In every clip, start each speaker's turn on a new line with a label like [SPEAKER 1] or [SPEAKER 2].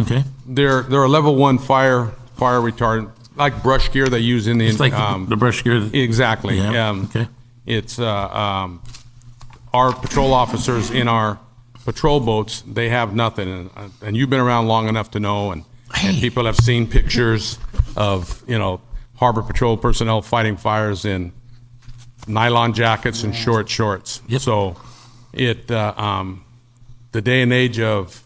[SPEAKER 1] Okay.
[SPEAKER 2] They're, they're a level one fire, fire retardant, like brush gear they use in the.
[SPEAKER 1] It's like the-
[SPEAKER 2] um,
[SPEAKER 1] the brush gear that-
[SPEAKER 2] Exactly.
[SPEAKER 1] Yeah,
[SPEAKER 2] Um,
[SPEAKER 1] okay.
[SPEAKER 2] It's, uh, um, our patrol officers in our patrol boats, they have nothing. And, uh, And you've been around long enough to know, and, and
[SPEAKER 1] Hey.
[SPEAKER 2] people have seen pictures of, you know, harbor patrol personnel fighting fires in nylon jackets and short shorts.
[SPEAKER 1] Yep.
[SPEAKER 2] So it, uh, um, the day and age of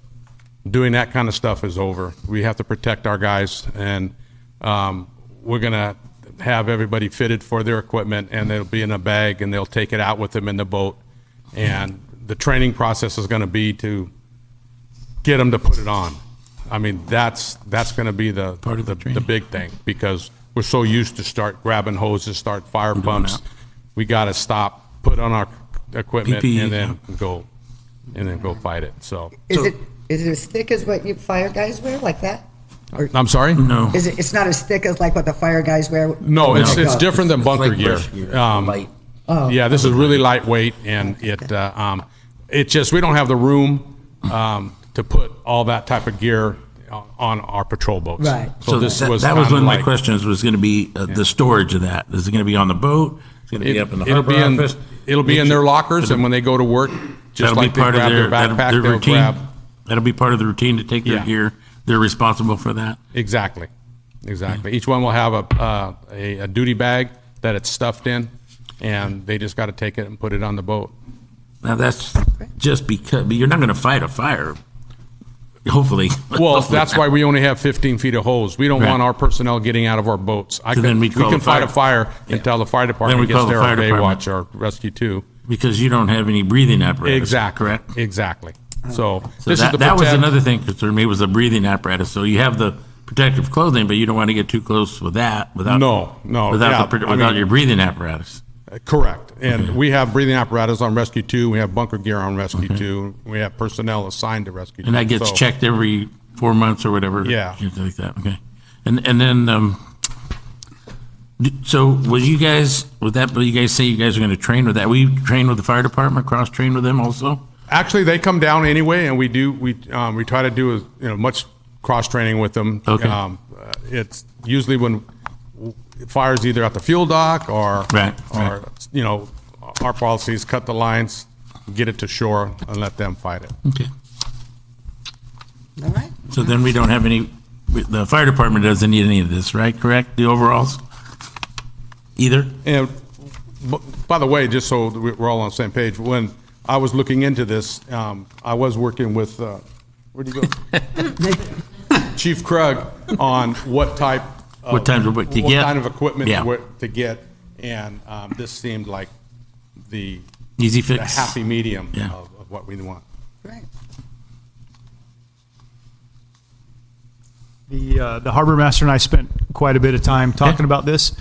[SPEAKER 2] doing that kind of stuff is over. We have to protect our guys, and um, we're gonna have everybody fitted for their equipment, and they'll be in a bag, and they'll take it out with them in the boat. And the training process is going to be to get them to put it on. I mean, that's that's going to be the
[SPEAKER 1] Part of the
[SPEAKER 2] the,
[SPEAKER 1] training.
[SPEAKER 2] big thing because we're so used to start grabbing hoses, start fire pumps.
[SPEAKER 1] that.
[SPEAKER 2] We got to stop, put on our equipment,
[SPEAKER 1] PPE,
[SPEAKER 2] and then go and then go fight it. So.
[SPEAKER 3] Is it, is it as thick as what you fire guys wear, like that? Or
[SPEAKER 2] I'm sorry?
[SPEAKER 1] No.
[SPEAKER 3] is it, it's not as thick as like what the fire guys wear?
[SPEAKER 2] No, it's,
[SPEAKER 3] Like,
[SPEAKER 2] it's
[SPEAKER 3] uh,
[SPEAKER 2] different than bunker
[SPEAKER 1] like
[SPEAKER 2] gear.
[SPEAKER 1] brush gear,
[SPEAKER 2] Um,
[SPEAKER 1] light.
[SPEAKER 2] Yeah, this is really lightweight and it, uh, um, it just, we don't have the room, um, to put all that type of gear on- on our patrol boats.
[SPEAKER 3] Right.
[SPEAKER 2] So this
[SPEAKER 1] that-
[SPEAKER 2] was
[SPEAKER 1] That was
[SPEAKER 2] kinda
[SPEAKER 1] one of my
[SPEAKER 2] like-
[SPEAKER 1] questions, was going to be uh, the storage of that. Is it going to be on the boat? It's going to be up in the
[SPEAKER 2] It- It'll
[SPEAKER 1] harbor
[SPEAKER 2] be in,
[SPEAKER 1] office?
[SPEAKER 2] it'll be in their lockers and when they go to work, just
[SPEAKER 1] That'll be
[SPEAKER 2] like they
[SPEAKER 1] part of
[SPEAKER 2] grab
[SPEAKER 1] their,
[SPEAKER 2] their
[SPEAKER 1] that'll-
[SPEAKER 2] backpack,
[SPEAKER 1] their
[SPEAKER 2] they'll grab.
[SPEAKER 1] routine. That'll be part of the routine to take their
[SPEAKER 2] Yeah.
[SPEAKER 1] gear. They're responsible for that.
[SPEAKER 2] Exactly, exactly. Each one will have a, uh, a a duty bag that it's stuffed in and they just got to take it and put it on the boat.
[SPEAKER 1] Now, that's just because, but you're not going to fight a fire, hopefully.
[SPEAKER 2] Well, that's why we only have 15 feet of hose. We don't
[SPEAKER 1] Right.
[SPEAKER 2] want our personnel getting out of our boats. I
[SPEAKER 1] So
[SPEAKER 2] can,
[SPEAKER 1] then
[SPEAKER 2] we
[SPEAKER 1] we'd call
[SPEAKER 2] can
[SPEAKER 1] the
[SPEAKER 2] fight a
[SPEAKER 1] fire.
[SPEAKER 2] fire
[SPEAKER 1] Yeah.
[SPEAKER 2] until the fire
[SPEAKER 1] we
[SPEAKER 2] department gets
[SPEAKER 1] call the
[SPEAKER 2] there or
[SPEAKER 1] fire department.
[SPEAKER 2] Baywatch or Rescue 2.
[SPEAKER 1] Because you don't have any breathing apparatus.
[SPEAKER 2] Exactly.
[SPEAKER 1] Correct?
[SPEAKER 2] Exactly. So
[SPEAKER 1] So
[SPEAKER 2] this is
[SPEAKER 1] that,
[SPEAKER 2] the
[SPEAKER 1] that was
[SPEAKER 2] protect-
[SPEAKER 1] another thing for me was the breathing apparatus. So you have the protective clothing, but you don't want to get too close with that without
[SPEAKER 2] No, no,
[SPEAKER 1] without
[SPEAKER 2] yeah,
[SPEAKER 1] the,
[SPEAKER 2] I
[SPEAKER 1] pro- without
[SPEAKER 2] mean-
[SPEAKER 1] your breathing apparatus.
[SPEAKER 2] Correct. And we have breathing apparatus on Rescue 2. We have bunker gear on Rescue 2. We have personnel assigned to Rescue 2.
[SPEAKER 1] And that gets
[SPEAKER 2] So-
[SPEAKER 1] checked every four months or whatever.
[SPEAKER 2] Yeah.
[SPEAKER 1] Things like that. Okay. And and then um, d- so was you guys with that? Will you guys say you guys are going to train with that? We train with the fire department, cross train with them also.
[SPEAKER 2] Actually, they come down anyway, and we do, we, um, we try to do, as you know, much cross-training with them.
[SPEAKER 1] Okay.
[SPEAKER 2] Um, uh, It's usually when w- fires either at the fuel dock or.
[SPEAKER 1] Right, right.
[SPEAKER 2] Or, you know, our policy is cut the lines, get it to shore, and let them fight it.
[SPEAKER 1] Okay.
[SPEAKER 3] All right.
[SPEAKER 1] So then we don't have any. The fire department doesn't need any of this, right? Correct. The overalls. Either.
[SPEAKER 2] And, b- by the way, just so that we- we're all on the same page, when I was looking into this, um, I was working with, uh, where'd you go? Chief Krug on what type. of-
[SPEAKER 1] What type of- what to get.
[SPEAKER 2] kind of equipment
[SPEAKER 1] Yeah.
[SPEAKER 2] where- to get, and um, this seemed like the
[SPEAKER 1] Easy
[SPEAKER 2] the
[SPEAKER 1] fix.
[SPEAKER 2] happy medium
[SPEAKER 1] Yeah.
[SPEAKER 2] of of what we want.
[SPEAKER 3] Right.
[SPEAKER 4] The, uh, the harbor master and I spent quite a bit of time talking about this,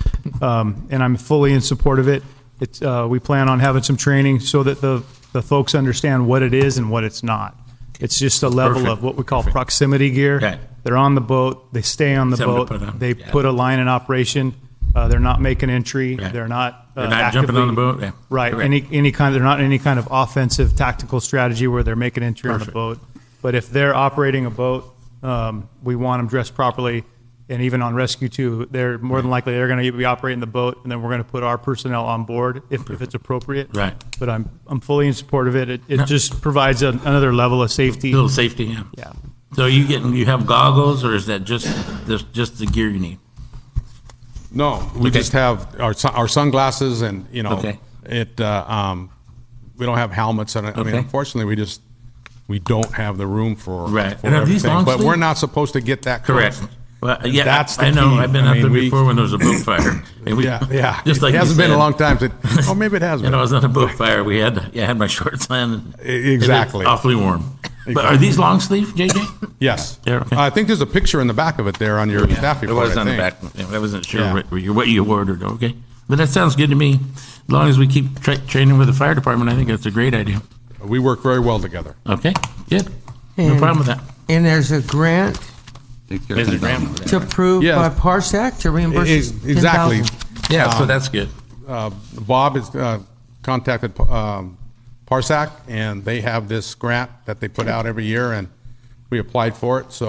[SPEAKER 4] um, and I'm fully in support of it. It's, uh, we plan on having some training so that the, the folks understand what it is and what it's not. It's just a level
[SPEAKER 1] Perfect.
[SPEAKER 4] of what we call proximity gear.
[SPEAKER 1] Right.
[SPEAKER 4] They're on the boat, they stay on the
[SPEAKER 1] Something to
[SPEAKER 4] boat,
[SPEAKER 1] put on.
[SPEAKER 4] they
[SPEAKER 1] Yeah.
[SPEAKER 4] put a line in operation, uh, they're not making entry,
[SPEAKER 1] Right.
[SPEAKER 4] they're not. uh,
[SPEAKER 1] They're not jumping on the
[SPEAKER 4] actively-
[SPEAKER 1] boat, yeah.
[SPEAKER 4] Right,
[SPEAKER 1] Correct.
[SPEAKER 4] any, any kind, they're not any kind of offensive tactical strategy where they're making entry on the
[SPEAKER 1] Perfect.
[SPEAKER 4] boat. But if they're operating a boat, um, we want them dressed properly. And even on rescue too, they're more than likely, they're going to be operating the boat and then we're going to put our personnel on board if, if it's appropriate.
[SPEAKER 1] Right.
[SPEAKER 4] But I'm, I'm fully in support of it. It, it just provides an- another level of safety.
[SPEAKER 1] Little safety, yeah.
[SPEAKER 4] Yeah.
[SPEAKER 1] So you getting, you have goggles or is that just, this, just the gear you need?
[SPEAKER 2] No, we
[SPEAKER 1] Okay.
[SPEAKER 2] just have our sun- our sunglasses and, you know,
[SPEAKER 1] Okay.
[SPEAKER 2] it, uh, um, we don't have helmets and, I mean,
[SPEAKER 1] Okay.
[SPEAKER 2] unfortunately, we just, we don't have the room for.
[SPEAKER 1] Right.
[SPEAKER 2] for
[SPEAKER 1] And are these
[SPEAKER 2] everything.
[SPEAKER 1] long
[SPEAKER 2] But we're
[SPEAKER 1] sleeve?
[SPEAKER 2] not supposed to get that close.
[SPEAKER 1] Correct. Well, yeah,
[SPEAKER 2] That's
[SPEAKER 1] I I
[SPEAKER 2] the
[SPEAKER 1] know,
[SPEAKER 2] key.
[SPEAKER 1] I've been
[SPEAKER 2] I
[SPEAKER 1] out
[SPEAKER 2] mean,
[SPEAKER 1] there
[SPEAKER 2] we-
[SPEAKER 1] before when there was a boat fire. And we-
[SPEAKER 2] Yeah, yeah.
[SPEAKER 1] Just like
[SPEAKER 2] It
[SPEAKER 1] you
[SPEAKER 2] hasn't been a
[SPEAKER 1] said.
[SPEAKER 2] long time since, oh, maybe it has
[SPEAKER 1] You
[SPEAKER 2] been.
[SPEAKER 1] know, I was on a boat fire, we had, yeah, I had my shorts on. and it was
[SPEAKER 2] E, exactly.
[SPEAKER 1] Awfully warm. But are these long sleeve, JJ?
[SPEAKER 2] Yes.
[SPEAKER 1] Yeah, okay.
[SPEAKER 2] I think there's a picture in the back of it there on your staff
[SPEAKER 1] It
[SPEAKER 2] report,
[SPEAKER 1] was
[SPEAKER 2] I
[SPEAKER 1] on the
[SPEAKER 2] think.
[SPEAKER 1] back, Yeah, I wasn't
[SPEAKER 2] Yeah.
[SPEAKER 1] sure what you, what you ordered, okay? But that sounds good to me. As long as we keep tra- training with the fire department, I think that's a great idea.
[SPEAKER 2] We work very well together.
[SPEAKER 1] Okay, good. No problem with that.
[SPEAKER 5] And there's a grant
[SPEAKER 1] There's a grant.
[SPEAKER 5] to approve
[SPEAKER 2] Yes.
[SPEAKER 5] by Parsec to reimburse
[SPEAKER 2] Ex- Exactly.
[SPEAKER 5] 10,000.
[SPEAKER 1] Yeah, so that's good.
[SPEAKER 2] Uh, Bob has uh, contacted um, Parsac, and they have this grant that they put out every year, and we applied for it, so